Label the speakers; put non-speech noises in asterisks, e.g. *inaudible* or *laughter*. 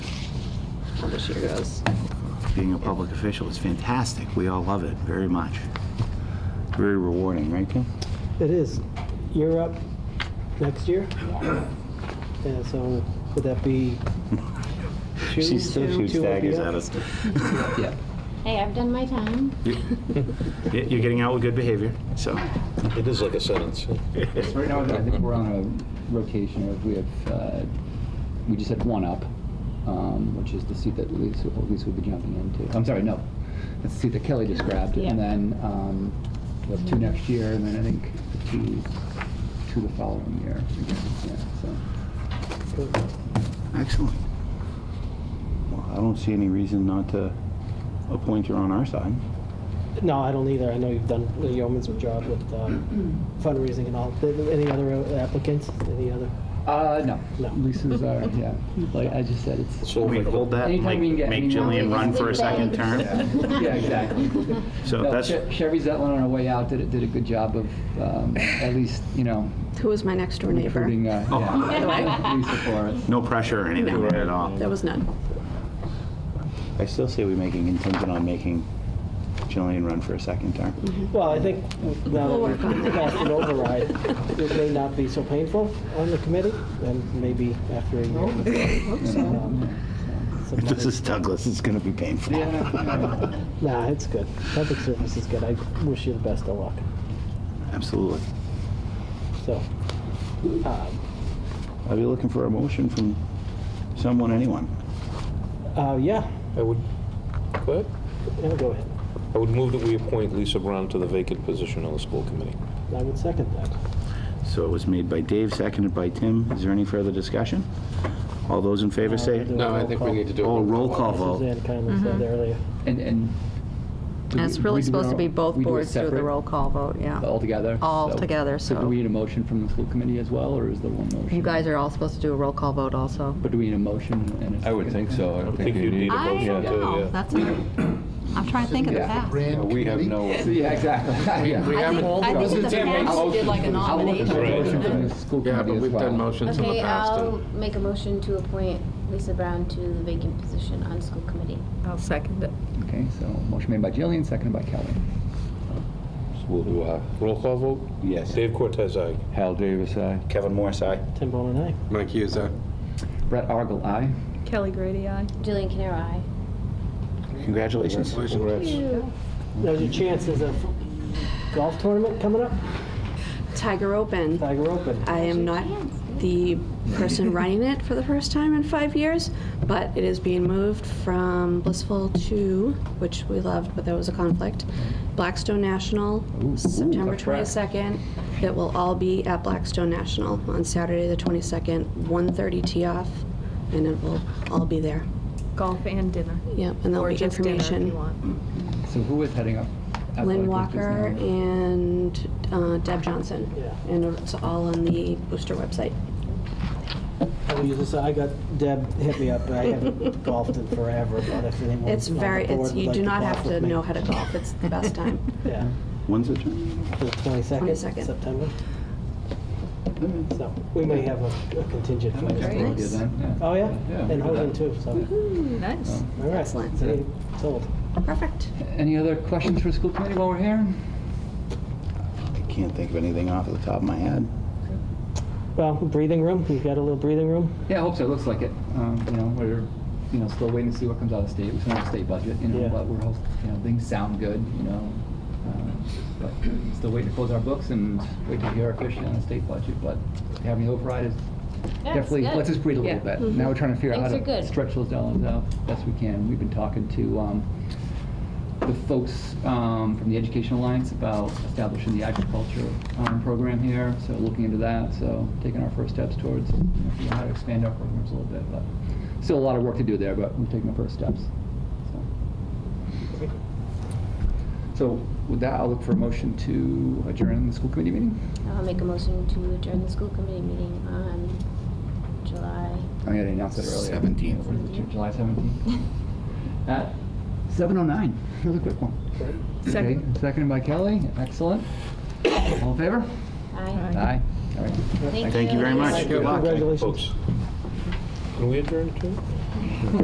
Speaker 1: how this year goes.
Speaker 2: Being a public official is fantastic. We all love it very much. Very rewarding, right, Kim?
Speaker 3: It is. You're up next year? Yeah, so would that be?
Speaker 2: She still
Speaker 3: June?
Speaker 2: shoots
Speaker 3: June would be
Speaker 2: daggers
Speaker 3: up?
Speaker 2: at us.
Speaker 4: Yeah.
Speaker 5: Hey, I've done my time.
Speaker 2: You- You're getting out with good behavior, so.
Speaker 6: It is like a sentence.
Speaker 4: Right now, I think we're on a rotation of, we have, uh, we just had one up, um, which is the seat that Lisa, or Lisa would be jumping into. I'm sorry, no, it's the seat that Kelly just grabbed.
Speaker 1: Yeah.
Speaker 4: And then um, we'll have two next year, and then I think two, two the following year again, yeah, so.
Speaker 2: Excellent. Well, I don't see any reason not to appoint her on our side.
Speaker 3: No, I don't either. I know you've done a yeoman's job with
Speaker 1: *clears throat*
Speaker 3: um, fundraising and all. Th- Any other applicants? Any other?
Speaker 4: Uh, no.
Speaker 3: No.
Speaker 4: Lisa's, uh, yeah, like I just said, it's,
Speaker 6: So
Speaker 2: We hold that, and, like,
Speaker 4: Anytime we can get
Speaker 2: make
Speaker 4: anyone-
Speaker 2: Jillian run for a second term.
Speaker 4: *laughs* yeah, exactly.
Speaker 2: So
Speaker 4: No,
Speaker 2: that's,
Speaker 4: Che- Chevy Zetlin on her way out did, did a good job of, um, at least, you know,
Speaker 1: Who was my next door neighbor?
Speaker 4: recruiting, uh,
Speaker 7: Oh.
Speaker 8: *laughs*
Speaker 4: yeah, Lisa for us.
Speaker 2: no pressure or anything at all.
Speaker 1: There was none.
Speaker 2: I still say we make it contingent on making Jillian run for a second term.
Speaker 3: Well, I think now that
Speaker 1: We'll
Speaker 3: we've
Speaker 1: work on that.
Speaker 3: passed an override, it may not be so painful on the committee, and maybe after a
Speaker 1: Oh,
Speaker 3: year. um, some
Speaker 2: *laughs* This
Speaker 3: other-
Speaker 2: is Douglas, it's gonna be painful.
Speaker 3: Nah, it's good. Public service is good. I wish you the best of luck.
Speaker 2: Absolutely.
Speaker 3: So, um,
Speaker 2: I'll be looking for a motion from someone, anyone.
Speaker 3: uh, yeah,
Speaker 6: I would, go ahead.
Speaker 3: yeah, go ahead.
Speaker 6: I would move that we appoint Lisa Brown to the vacant position on the school committee.
Speaker 3: I would second that.
Speaker 2: So it was made by Dave, seconded by Tim. Is there any further discussion? All those in favor say,
Speaker 3: No, I think we need to
Speaker 2: oh, roll call vote.
Speaker 3: Suzanne kindly
Speaker 1: Mm-hmm.
Speaker 3: said earlier.
Speaker 4: And, and. do
Speaker 8: And it's
Speaker 4: we-
Speaker 8: really
Speaker 4: we do it
Speaker 8: supposed to be
Speaker 4: all-
Speaker 8: both
Speaker 4: we do it
Speaker 8: boards do the
Speaker 4: separate,
Speaker 8: roll call vote, yeah.
Speaker 4: All together?
Speaker 8: All
Speaker 4: so-
Speaker 8: together,
Speaker 4: do
Speaker 8: so-
Speaker 4: we need a motion from the school committee as well, or is there one motion?
Speaker 8: You guys are all supposed to do a roll call vote also.
Speaker 4: But do we need a motion and a
Speaker 7: I would think so. I don't think
Speaker 6: think
Speaker 7: you
Speaker 6: you'd
Speaker 7: need.
Speaker 6: need-
Speaker 4: Oh,
Speaker 7: it.
Speaker 6: I
Speaker 8: I
Speaker 6: don't
Speaker 8: know, that's, I'm trying to think of the
Speaker 4: Yeah.
Speaker 8: past.
Speaker 7: We have no.
Speaker 4: Yeah, exactly. Yeah.
Speaker 8: I think, I think in the past did like a
Speaker 4: I'll look
Speaker 8: nomination.
Speaker 4: for a motion from the school committee
Speaker 7: Yeah, but
Speaker 4: as
Speaker 7: we've done
Speaker 4: well.
Speaker 7: motions in the
Speaker 5: Okay,
Speaker 7: past.
Speaker 5: I'll
Speaker 7: and-
Speaker 5: make a motion to appoint Lisa Brown to the vacant position on school committee.
Speaker 8: I'll second it.
Speaker 4: Okay, so motion made by Jillian, seconded by Kelly.
Speaker 7: So We'll do uh,
Speaker 6: Roll call vote?
Speaker 2: Yes.
Speaker 6: Dave Cortez, aye.
Speaker 7: Hal Davis, aye.
Speaker 2: Kevin Morris, aye.
Speaker 3: Tim Bone and I.
Speaker 7: Mike Hughes, aye.
Speaker 4: Brett Argel, aye.
Speaker 8: Kelly Grady, aye.
Speaker 5: Jillian Canaro, aye.
Speaker 2: Congratulations.
Speaker 3: There's your chances of golf tournament coming up,
Speaker 1: Tiger Open.
Speaker 3: Tiger Open.
Speaker 1: I am not the person running it for the first time in five years, but it is being moved from Blissful to, which we loved, but there was a conflict, Blackstone National,
Speaker 4: Ooh, ooh,
Speaker 1: September
Speaker 4: tough track.
Speaker 1: 22nd. It will all be at Blackstone National on Saturday, the 22nd, 1:30 tee off, and it will all be there.
Speaker 9: Golf and dinner.
Speaker 1: Yep, and there'll
Speaker 9: Or
Speaker 1: be
Speaker 9: just dinner if you
Speaker 1: information.
Speaker 9: want.
Speaker 4: So who is heading up?
Speaker 1: Lynn
Speaker 4: Athletic
Speaker 1: Walker
Speaker 4: Business now?
Speaker 1: and uh, Deb Johnson.
Speaker 3: Yeah.
Speaker 1: And it's all on the Booster website.
Speaker 3: I will use this, I got, Deb hit me up, I
Speaker 1: *laughs*
Speaker 3: haven't golfed in forever, but if anyone
Speaker 1: It's
Speaker 3: on the
Speaker 1: very, it's,
Speaker 3: board would
Speaker 1: you
Speaker 3: like
Speaker 1: do not
Speaker 3: golf
Speaker 1: have
Speaker 3: with
Speaker 1: to
Speaker 3: me.
Speaker 1: know how to golf, it's the best time.
Speaker 3: Yeah,
Speaker 2: When's the turn?
Speaker 3: the 22nd,
Speaker 1: 22nd.
Speaker 3: September.
Speaker 1: Mm-hmm.
Speaker 3: So, we may have a a contingent.
Speaker 4: I might
Speaker 3: for
Speaker 4: just
Speaker 3: this.
Speaker 4: go here then,
Speaker 3: Oh, yeah?
Speaker 4: Yeah,
Speaker 3: And
Speaker 4: look at
Speaker 3: Hosen
Speaker 4: that.
Speaker 3: too, so,
Speaker 9: Nice.
Speaker 3: all right.
Speaker 1: Mm-hmm. Excellent.
Speaker 3: See, Sold.
Speaker 1: Perfect.
Speaker 4: Any other questions for the school committee while we're here?
Speaker 2: I can't think of anything off the top of my head.
Speaker 3: Well, breathing room, you've got a little breathing room?
Speaker 4: Yeah, I hope so. It looks like it. Um, you know, we're, you know, still waiting to see what comes out of state. We still have a state budget, you
Speaker 3: Yeah.
Speaker 4: know, but we're, hope- you know, things sound good, you know. um, But still waiting to close our books and wait to hear officially on the state budget, but having the override is definitely,
Speaker 5: good. Mm-hmm.
Speaker 4: lets us breathe a little bit. Now we're trying to figure out how
Speaker 5: Things are
Speaker 4: to
Speaker 5: good.
Speaker 4: stretch those dollars out best we can. We've been talking to, um, the folks um, from the Education Alliance about establishing the agriculture um, program here, so looking into that, so taking our first steps towards, you know, figuring out how to expand our programs a little bit, but still a lot of work to do there, but we're taking our first steps. so. So with that, I'll look for a motion to adjourn the school committee meeting.
Speaker 5: I'll make a motion to adjourn the school committee meeting on July.
Speaker 4: I gotta announce that earlier.
Speaker 2: 17th.
Speaker 4: What is it, July 17th? At 7:09, *laughs* another quick one.
Speaker 9: Second.
Speaker 4: Okay, Seconded by Kelly, excellent. All in favor?
Speaker 5: Aye.
Speaker 4: Aye. All right.
Speaker 2: Thank you very much. Good luck.
Speaker 3: Congratulations.
Speaker 6: Folks. Can we adjourn too?